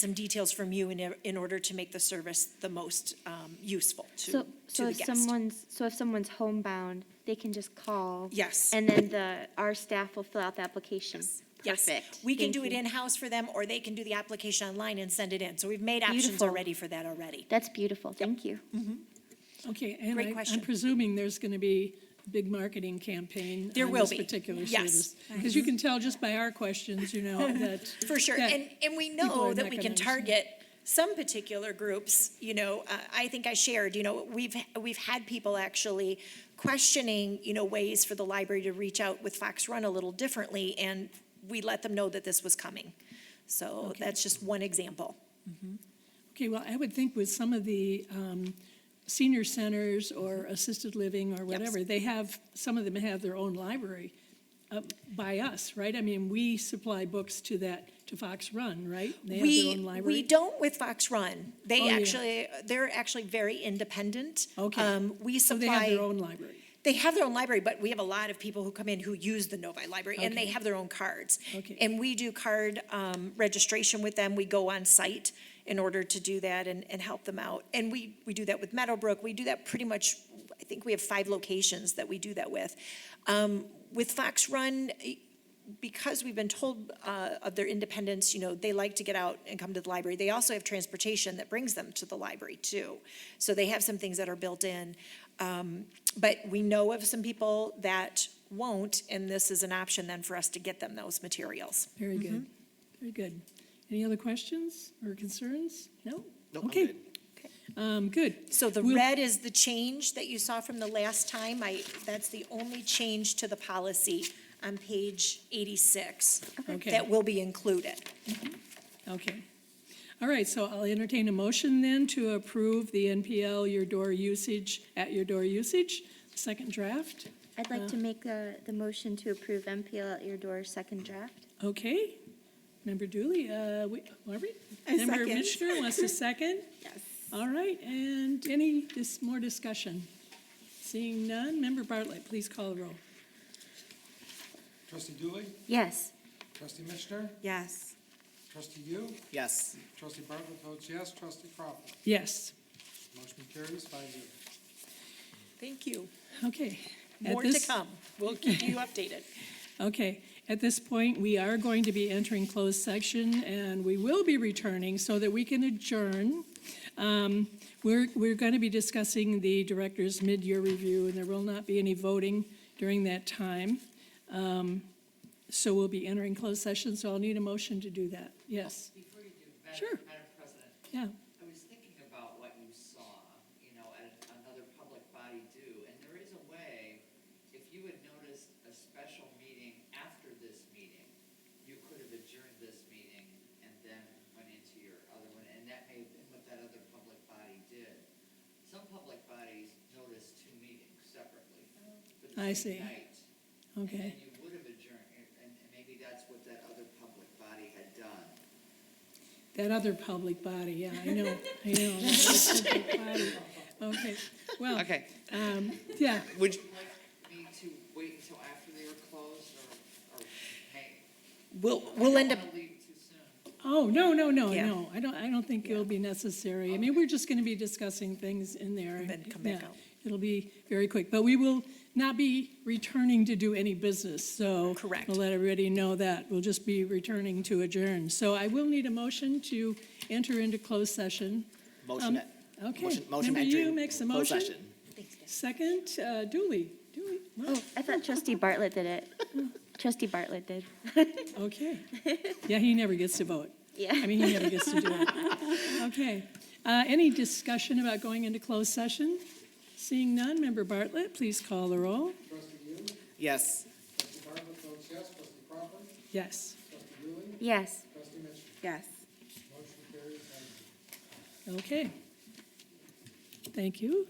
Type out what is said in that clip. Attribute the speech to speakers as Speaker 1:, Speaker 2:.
Speaker 1: some details from you in, in order to make the service the most um, useful to,
Speaker 2: So,
Speaker 1: to
Speaker 2: so
Speaker 1: the
Speaker 2: if
Speaker 1: guest.
Speaker 2: someone's, so if someone's homebound, they can just call?
Speaker 1: Yes.
Speaker 2: And then the, our staff will fill out the application?
Speaker 1: Yes.
Speaker 2: Perfect.
Speaker 1: We can
Speaker 2: Thank
Speaker 1: do it
Speaker 2: you.
Speaker 1: in-house for them, or they can do the application online and send it in. So we've made options
Speaker 2: Beautiful.
Speaker 1: already for that already.
Speaker 2: That's beautiful, thank you.
Speaker 1: Mm-hmm.
Speaker 3: Okay, and
Speaker 1: Great
Speaker 3: I-
Speaker 1: question.
Speaker 3: I'm presuming there's going to be a big marketing campaign
Speaker 1: There
Speaker 3: on
Speaker 1: will
Speaker 3: this
Speaker 1: be,
Speaker 3: particular
Speaker 1: yes.
Speaker 3: service. Because you can tell just by our questions, you know, that.
Speaker 1: For sure,
Speaker 3: that
Speaker 1: and, and we
Speaker 3: people
Speaker 1: know
Speaker 3: are
Speaker 1: that
Speaker 3: not
Speaker 1: we
Speaker 3: gonna
Speaker 1: can
Speaker 3: understand.
Speaker 1: target some particular groups, you know, uh, I think I shared, you know, we've, we've had people actually questioning, you know, ways for the library to reach out with Fox Run a little differently, and we let them know that this was coming. So that's just one example.
Speaker 3: Okay, well, I would think with some of the um, senior centers or
Speaker 1: Mm-hmm.
Speaker 3: assisted living or whatever, they have, some of them have their own library uh, by us, right? I mean, we supply books to that, to Fox Run, right? They have their
Speaker 1: We,
Speaker 3: own library.
Speaker 1: we don't with Fox Run.
Speaker 3: Oh,
Speaker 1: They
Speaker 3: yeah.
Speaker 1: actually, they're actually very independent.
Speaker 3: Okay.
Speaker 1: Um, We
Speaker 3: So
Speaker 1: supply.
Speaker 3: they have their own library.
Speaker 1: They have their own library, but we have a lot of people who come in who use the Novi Library, and they
Speaker 3: Okay.
Speaker 1: have their own cards.
Speaker 3: Okay.
Speaker 1: And we do card um, registration with them. We go on site in order to do that and, and help them out. And we, we do that with Meadowbrook. We do that pretty much, I think we have five locations that we do that with. Um, With Fox Run, e, because we've been told uh, of their independence, you know, they like to get out and come to the library. They also have transportation that brings them to the library too. So they have some things that are built in. Um, But we know of some people that won't, and this is an option then for us to get them those materials.
Speaker 3: Very
Speaker 4: Mm-hmm.
Speaker 3: good, very good. Any other questions or concerns? No?
Speaker 5: Nope, I'm
Speaker 3: Okay.
Speaker 5: good.
Speaker 3: Um, good.
Speaker 1: So the
Speaker 3: We'll-
Speaker 1: red is the change that you saw from the last time. I, that's the only change to the policy on page 86
Speaker 3: Okay.
Speaker 1: that will be included.
Speaker 3: Okay. All right, so I'll entertain a motion then to approve the NPL your door usage, at your door usage, second draft.
Speaker 2: I'd like to make uh, the motion to approve MPL at your door second draft.
Speaker 3: Okay. Member Dooley, uh, we, Marbury?
Speaker 4: I
Speaker 3: Member
Speaker 4: second.
Speaker 3: Mishner wants to second?
Speaker 4: Yes.
Speaker 3: All right, and any, this, more discussion? Seeing none, Member Bartlett, please call the roll.
Speaker 6: Trustee Dooley,
Speaker 2: Yes.
Speaker 6: trustee Mishner,
Speaker 4: Yes.
Speaker 6: trustee Yu,
Speaker 5: Yes.
Speaker 6: trustee Bartlett votes yes, trustee Crawford.
Speaker 3: Yes.
Speaker 6: Motion carries five zero.
Speaker 1: Thank you.
Speaker 3: Okay. At
Speaker 1: More to
Speaker 3: this-
Speaker 1: come. We'll keep you updated.
Speaker 3: Okay, at this point, we are going to be entering closed section, and we will be returning so that we can adjourn. Um, We're, we're going to be discussing the director's mid-year review, and there will not be any voting during that time. Um, So we'll be entering closed session, so I'll need a motion to do that. Yes,
Speaker 7: Before you do,
Speaker 3: Sure.
Speaker 7: Madam, Madam President,
Speaker 3: yeah,
Speaker 7: I was thinking about what you saw, you know, at another public body do, and there is a way, if you had noticed a special meeting after this meeting, you could have adjourned this meeting and then went into your other one, and that may have been what that other public body did. Some public bodies notice two meetings separately for
Speaker 3: I
Speaker 7: the
Speaker 3: see.
Speaker 7: same night.
Speaker 3: okay.
Speaker 7: And then you would have adjourned, and, and maybe that's what that other public body had done.
Speaker 3: That other public body, yeah, I know, I know. that other public body. Okay, well, um,
Speaker 7: Okay.
Speaker 3: yeah,
Speaker 5: Would,
Speaker 7: like me to wait until after they were closed or, or, hey?
Speaker 1: We'll, we'll end up
Speaker 7: I don't wanna leave too soon.
Speaker 3: Oh, no, no, no,
Speaker 1: Yeah.
Speaker 3: no, I don't, I don't think it'll be necessary. I mean, we're just gonna be discussing things in there.
Speaker 1: And then come back
Speaker 3: Yeah,
Speaker 1: out.
Speaker 3: It'll be very quick, but we will not be returning to do any business, so.
Speaker 1: Correct.
Speaker 3: We'll let everybody know that. We'll just be returning to adjourn. So I will need a motion to enter into closed session. Um,
Speaker 5: motion it.
Speaker 3: Okay.
Speaker 5: Motion, motion
Speaker 3: Member Yu
Speaker 5: entering
Speaker 3: makes the
Speaker 5: closed
Speaker 3: motion.
Speaker 5: session.
Speaker 3: Second, uh, Dooley, Dooley,
Speaker 2: Oh, I thought trustee Bartlett did it. Trustee Bartlett did.
Speaker 3: okay. Yeah, he never gets to vote.
Speaker 2: Yeah.
Speaker 3: I mean, he never gets to do it. Okay. Uh, Any discussion about going into closed session? Seeing none, Member Bartlett, please call the roll.
Speaker 6: Trustee Yu,
Speaker 5: Yes.
Speaker 6: trustee Bartlett votes yes, trustee Crawford,
Speaker 3: Yes.
Speaker 6: trustee Dooley,
Speaker 2: Yes.
Speaker 6: trustee Mishner.
Speaker 4: Yes.
Speaker 6: Motion carries five zero.
Speaker 3: Okay. Thank you.